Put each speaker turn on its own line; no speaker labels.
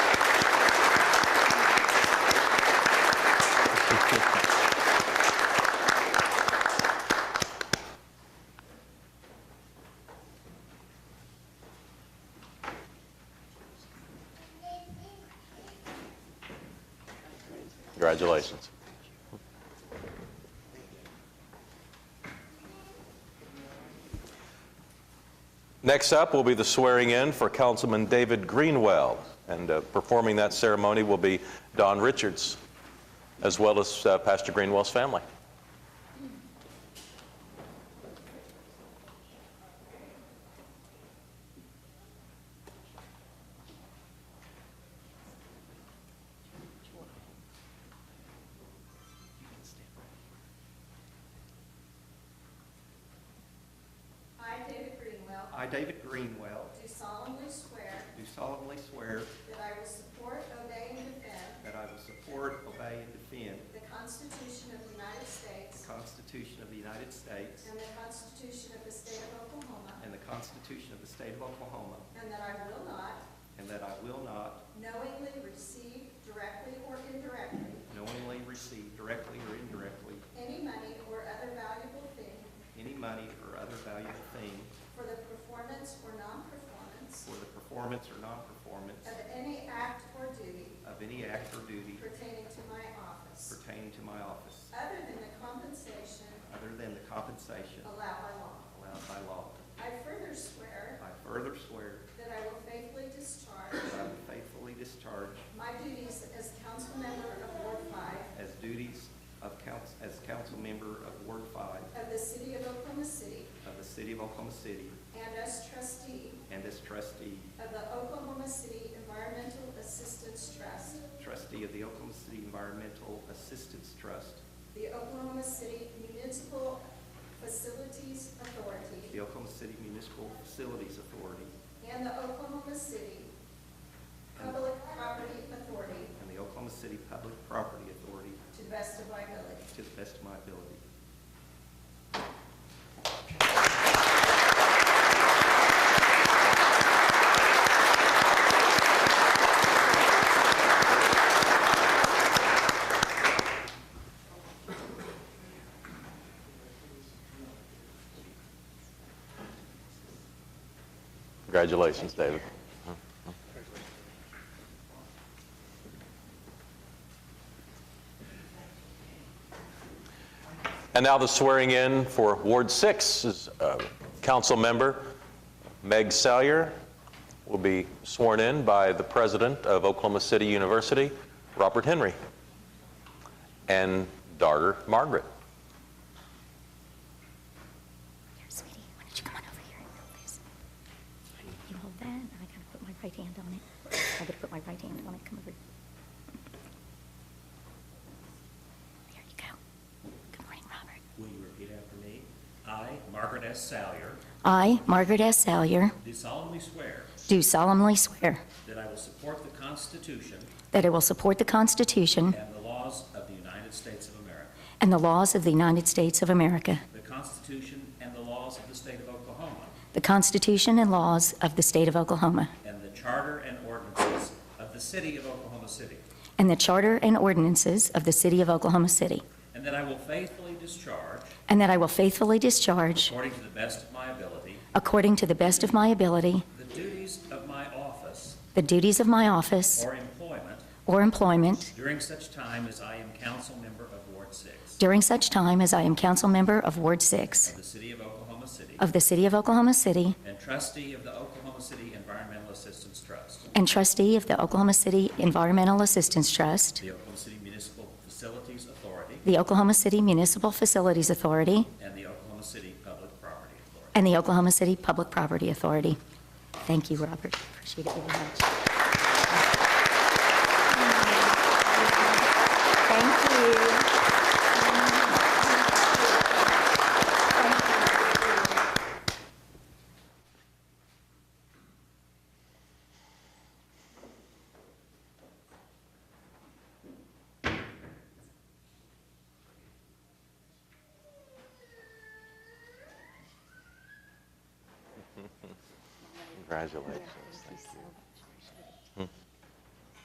Congratulations. Next up will be the swearing-in for Councilman David Greenwell, and uh, performing that ceremony will be Don Richards, as well as uh, Pastor Greenwell's family.
I, David Greenwell,
I, David Greenwell,
do solemnly swear
do solemnly swear
that I will support, obey, and defend
that I will support, obey, and defend
the Constitution of the United
the
States
Constitution of the United States
and the Constitution of the State of Oklahoma,
and the Constitution of the State of Oklahoma,
and that I will not
and that I will not
knowingly receive directly or indirectly
knowingly receive directly or indirectly
any money or other valuable thing
any money or other valuable thing
for the performance or non-performance
for the performance or non-performance
of any act or duty
of any act or duty
pertaining to my office,
pertaining to my office,
other than the compensation
other than the compensation
allowed by law.
allowed by law.
I further swear
I further swear
that I will faithfully discharge
that I will faithfully discharge
My duties as council member of Ward Five
as duties of council, as council member of Ward Five
of the city of Oklahoma City
of the City of Oklahoma City
and as trustee
and as trustee,
of the Oklahoma City Environmental Assistance Trust,
trustee of the Oklahoma City Environmental Assistance Trust,
the Oklahoma City Municipal Facilities Authority,
the Oklahoma City Municipal Facilities Authority,
and the Oklahoma City Public Property Authority
and the Oklahoma City Public Property Authority
to the best of my ability.
to the best of my ability.
Congratulations, David. And now the swearing in for Ward 6 is uh, council member Meg Salyer will be sworn in by the president of Oklahoma City University, Robert Henry, and daughter Margaret.
Here, sweetie, why don't you come on over here and hold this? You hold that, and I gotta put my right hand on it. I gotta put my right hand on it, come over. There you go. Good morning, Robert.
Will you repeat after me? I, Margaret S. Salyer,
I, Margaret S. Salyer,
do solemnly swear
do solemnly swear
that I will support the Constitution
that I will support the Constitution
and the laws of the United States of America,
and the laws of the United States of America,
the Constitution and the laws of the State of Oklahoma,
the Constitution and laws of the State of Oklahoma,
and the Charter and ordinances of the City of Oklahoma City,
and the Charter and ordinances of the City of Oklahoma City,
and that I will faithfully discharge,
and that I will faithfully discharge,
according to the best of my ability,
according to the best of my ability,
the duties of my office
The duties of my office
or employment
or employment
during such time as I am council member of Ward 6
during such time as I am council member of Ward
of
6
the City of Oklahoma City,
of the City of Oklahoma City
and trustee of the Oklahoma City Environmental Assistance Trust,
and trustee of the Oklahoma City Environmental Assistance Trust,
the Oklahoma City Municipal Facilities Authority,
the Oklahoma City Municipal Facilities Authority,
and the Oklahoma City Public Property Authority.
and the Oklahoma City Public Property Authority. Thank you, Robert. Appreciate it very much. Thank you.
Congratulations. Thank you.